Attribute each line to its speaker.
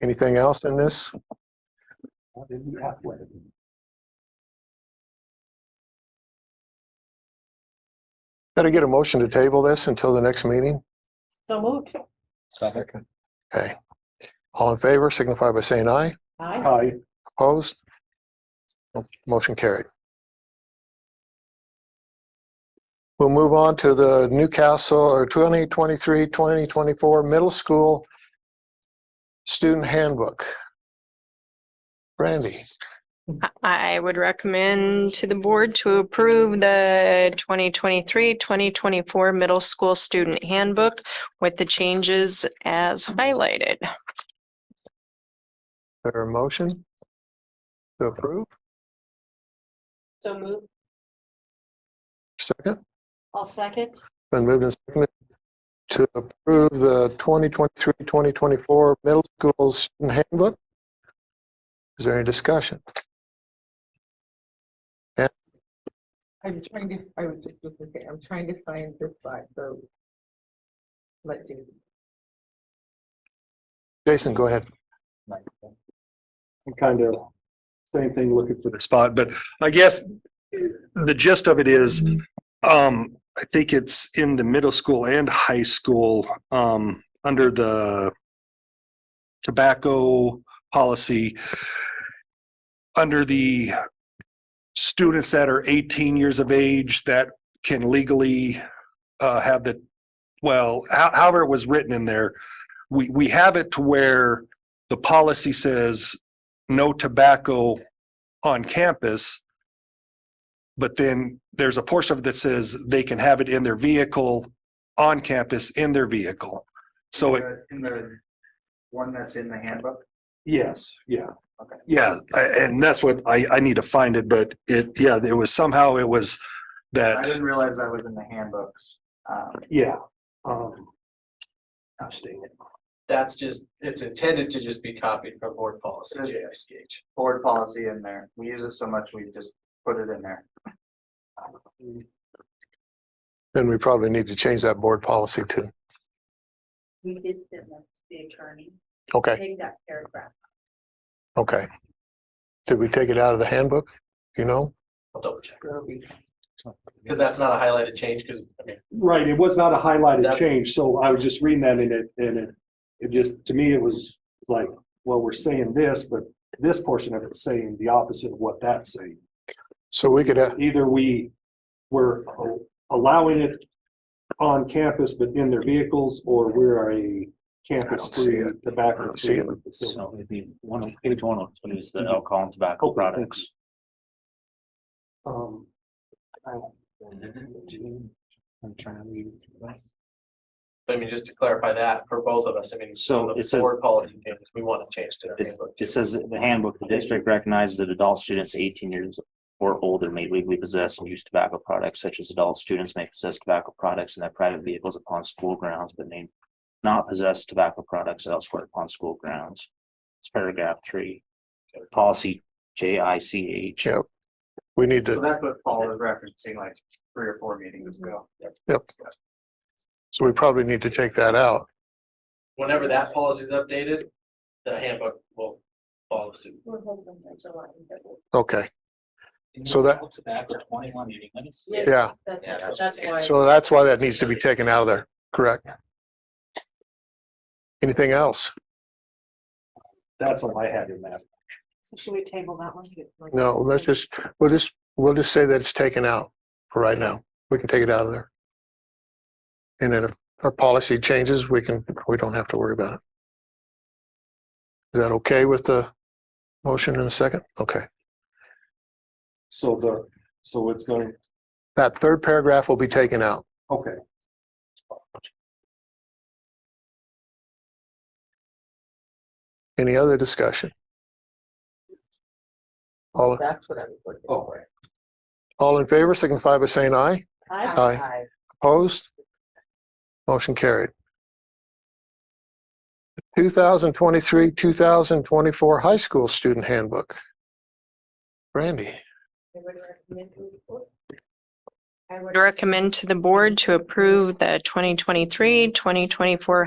Speaker 1: Anything else in this? Got to get a motion to table this until the next meeting?
Speaker 2: So moved.
Speaker 3: Second.
Speaker 1: Okay. All in favor signify by saying aye.
Speaker 2: Aye.
Speaker 3: Hi.
Speaker 1: Opposed? Motion carried. We'll move on to the Newcastle or 2023, 2024 Middle School Student Handbook. Brandy,
Speaker 4: I would recommend to the board to approve the 2023-2024 Middle School Student Handbook with the changes as highlighted.
Speaker 1: there a motion to approve?
Speaker 2: So moved.
Speaker 1: Second,
Speaker 2: I'll second.
Speaker 1: been moved and seconded to approve the 2023, 2024 Middle School Student Handbook. Is there any discussion?
Speaker 5: I'm trying to, I was just looking, at- I'm trying to find this slide, so. Let's do.
Speaker 1: Jason, go ahead.
Speaker 3: I'm kind of, same thing looking for the spot, but I guess the gist of it is, um, I think it's in the middle school and high school, um, under the tobacco policy, under the students that are 18 years of age that can legally, uh, have the, well, how- however it was written in there, we, we have it to where the policy says no tobacco on campus. But then there's a portion of it that says they can have it in their vehicle, on campus, in their vehicle. So it,
Speaker 6: the- In the one that's in the handbook?
Speaker 3: Yes, yeah.
Speaker 6: Okay.
Speaker 3: Yeah, I- and that's what I, I need to find it, but it, yeah, it was somehow it was
Speaker 6: I
Speaker 3: that,
Speaker 6: didn't realize that was in the handbooks. Um,
Speaker 3: yeah. um, I'm staying it.
Speaker 7: that's just, it's intended to just be copied from board policy, JICH.
Speaker 6: Board policy in there. We use it so much, we just put it in there.
Speaker 1: Then we probably need to change that board policy too.
Speaker 2: We did send them to the attorney.
Speaker 1: Okay,
Speaker 2: Take that paragraph.
Speaker 1: okay. Did we take it out of the handbook? You know?
Speaker 7: I'll double check. Because that's not a highlighted change, because, I mean,
Speaker 8: Right, it was not a highlighted
Speaker 7: That-
Speaker 8: change, so I was just reading that and it, and it, it just, to me, it was like, well, we're saying this, but this portion of it's saying the opposite of what that's saying.
Speaker 1: So we could, uh,
Speaker 8: Either we were allowing it on campus but in their vehicles, or we're a
Speaker 1: see
Speaker 8: campus-free
Speaker 1: it. I
Speaker 8: tobacco.
Speaker 1: don't see it.
Speaker 8: facility.
Speaker 9: So Oh, it'd be one, of- page one of two is the alcohol and tobacco products.
Speaker 8: Um,
Speaker 7: I mean, just to clarify that for both of us, I mean,
Speaker 9: So
Speaker 7: the
Speaker 9: it says-
Speaker 7: Board policy changes, we want to change to the
Speaker 9: It's-
Speaker 7: handbook.
Speaker 9: It says in the handbook, the district recognizes that adult students eighteen years or older may legally possess and use tobacco products such as adult students may possess tobacco products in their private vehicles upon school grounds, but may not possess tobacco products elsewhere upon school grounds. It's paragraph three, policy J I C H.
Speaker 1: yeah, we need
Speaker 6: So
Speaker 1: to,
Speaker 6: that's what Paul was referencing like three or four meetings
Speaker 7: Mm-hmm.
Speaker 6: ago.
Speaker 1: so we probably need to take that out.
Speaker 7: Whenever that policy is updated, the handbook will follow suit.
Speaker 2: We're hoping that's a lot.
Speaker 1: Okay, So that-
Speaker 9: Tobacco twenty-one meeting minutes.
Speaker 1: yeah.
Speaker 2: That's, that's why.
Speaker 1: So that's why that needs to be taken out of there, correct? Anything else?
Speaker 8: That's all I had in that.
Speaker 2: So Should we table that one?
Speaker 1: No, let's just, we'll just, we'll just say that it's taken out for right now. We can take it out of there. And then if our policy changes, we can, we don't have to worry about it. Is that okay with the motion in a second? Okay.
Speaker 8: So the, so it's going,
Speaker 1: That third paragraph will be taken out.
Speaker 8: okay,
Speaker 1: Any other discussion? All,
Speaker 5: That's what I was looking
Speaker 8: Oh.
Speaker 5: for.
Speaker 1: all in favor signify by saying aye.
Speaker 2: Aye.
Speaker 1: Aye.
Speaker 5: Aye.
Speaker 1: Opposed? Motion carried. 2023, 2024 High School Student Handbook. Brandy,
Speaker 2: I would recommend to the board.
Speaker 4: I would recommend to the board to approve the 2023-2024